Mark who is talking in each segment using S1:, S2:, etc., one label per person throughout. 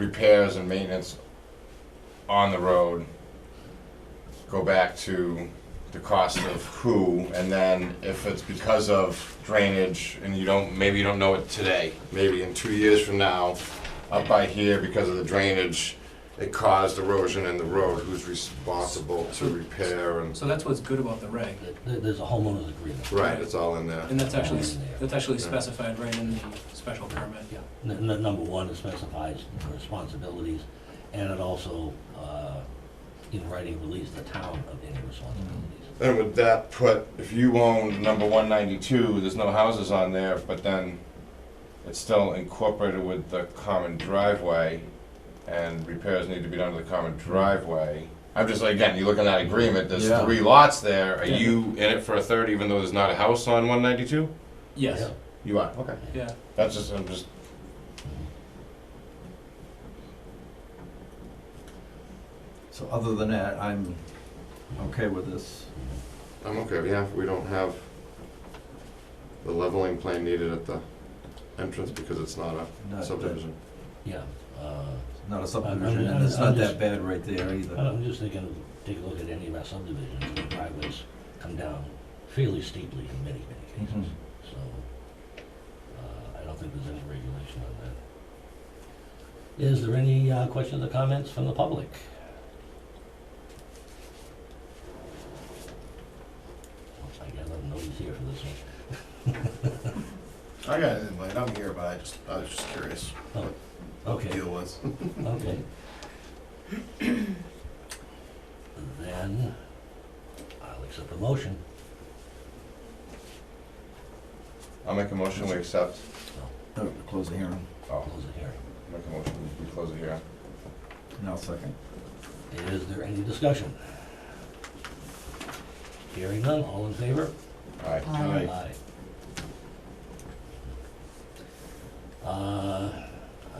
S1: repairs and maintenance on the road go back to the cost of who, and then if it's because of drainage, and you don't, maybe you don't know it today, maybe in two years from now, up by here, because of the drainage, it caused erosion in the road, who's responsible to repair and,
S2: So that's what's good about the reg,
S3: There- There's a homeowners agreement.
S1: right, it's all in there.
S2: and that's actually, that's actually
S1: Yeah.
S2: specified right in the special permit.
S3: Yeah, N- n- number one, it specifies responsibilities, and it also, uh, in writing, relieves the town of any responsibilities.
S1: Then would that put, if you own number one ninety-two, there's no houses on there, but then it's still incorporated with the common driveway, and repairs need to be done to the common driveway. I'm just, like, again, you look at that agreement, there's
S4: Yeah.
S1: three lots there, are
S2: Yeah.
S1: you in it for a third even though there's not a house on one ninety-two?
S2: Yes,
S1: You are, okay.
S2: yeah,
S1: That's just, I'm just,
S4: So other than that, I'm okay with this.
S1: I'm okay, yeah, we don't have the leveling plan needed at the entrance because it's not
S4: Not
S1: a
S4: that-
S1: subdivision.
S3: Yeah, uh,
S4: Not a
S3: I'm-
S4: subdivision,
S3: I'm-
S4: and it's
S3: I'm
S4: not
S3: just-
S4: that bad right there either.
S3: I'm just thinking, take a look at any of our subdivisions, the driveways come down fairly steeply in many, many
S4: Mhm.
S3: cases. So, uh, I don't think there's any regulation on that. Is there any, uh, questions or comments from the public? I gotta let him know he's here for this one.
S5: I got an invite. I'm here, but I just I was just curious what the
S3: Oh, Okay,
S5: deal was.
S3: okay. Then, I'll accept the motion.
S1: I'll make a motion, we accept,
S4: Oh, Close the hearing.
S1: oh,
S3: Close the hearing.
S1: make a motion, we close it here.
S4: Now second.
S3: Is there any discussion? Hearing none, all in favor?
S1: Aye.
S6: Aye.
S3: Aye. Uh, I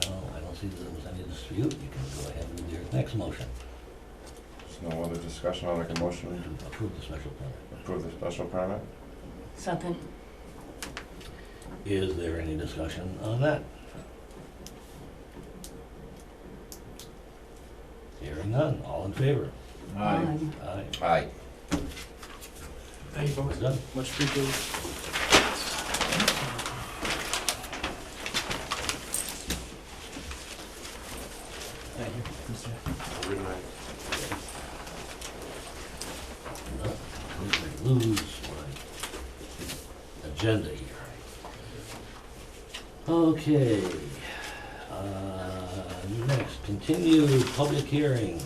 S3: don't, I don't see that there was any dispute, you can go ahead with your next motion
S1: There's no other discussion, I'll make a
S3: to
S1: motion
S3: approve the special
S1: to
S3: permit.
S1: approve the special permit.
S6: Second.
S3: Is there any discussion on that? Hearing none, all in favor?
S6: Aye.
S3: Aye.
S1: Aye.
S2: thank you
S3: We're
S2: folks,
S3: done.
S2: much appreciated. Thank you, Mr.
S3: Not completely lose my agenda here. Okay, uh, next, continued public hearing,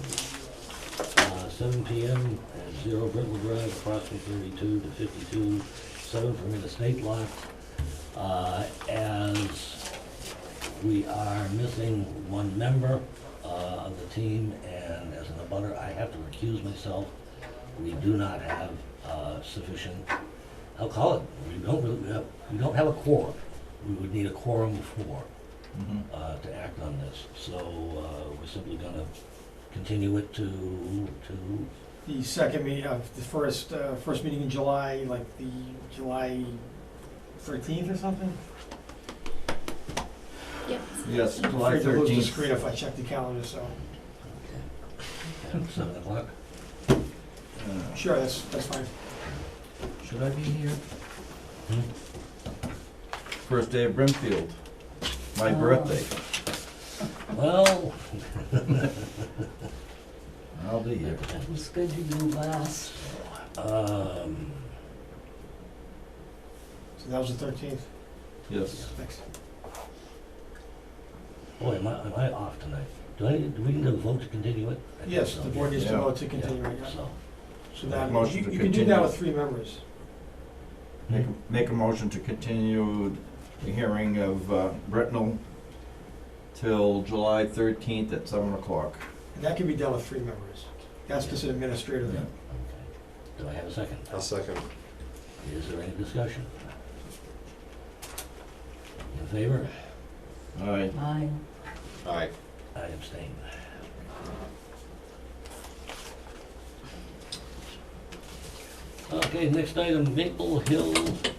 S3: uh, seven P M at Zero Brittle Drive, approximately thirty-two to fifty-two, seven from interstate lot. Uh, as we are missing one member, uh, of the team, and as an abutter, I have to recuse myself we do not have uh, sufficient, I'll call it, we don't really, have- we don't have a quorum. We would need a quorum before
S4: Mhm.
S3: uh, to act on this, so uh, we're simply gonna continue it to, to,
S7: The second meeting, uh, the first, uh, first meeting in July, like the July thirteenth or something?
S6: Yep.
S4: Yes,
S7: I'm
S4: July
S7: afraid to lose the
S4: thirteenth.
S7: screen if I check the calendar, so,
S3: at seven o'clock.
S7: sure, that's, that's fine.
S4: Uh, Should I be here? First day of Brimfield, my
S6: Oh.
S4: birthday.
S3: Well,
S4: I'll be here.
S6: It was good to do last.
S3: um,
S7: So that was the thirteenth,
S4: Yes.
S7: thanks.
S3: boy, am I, am I off tonight? Do I, do we need a vote to continue it? I think
S7: Yes,
S3: so,
S7: the board
S3: yeah.
S7: needs to
S4: Yeah.
S7: vote to continue right
S3: Yeah,
S7: now.
S3: So,
S7: So that,
S4: Motion
S7: you
S4: to
S7: you can do
S4: continue.
S7: that with three members.
S4: Make, a- make a motion to continue the hearing of uh, Britnell till July thirteenth at seven o'clock.
S7: And that can be done with three members. That's just an administrative thing.
S3: okay. Do I have a second?
S1: I'll second.
S3: Is there any discussion? In favor?
S4: Aye.
S6: Aye.
S1: Aye.
S3: I abstain. Okay, next item, Maple Hill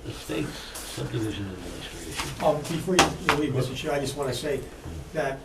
S3: Estates subdivision administration.
S7: Um, before you leave, Mr. Chair, I just wanna say that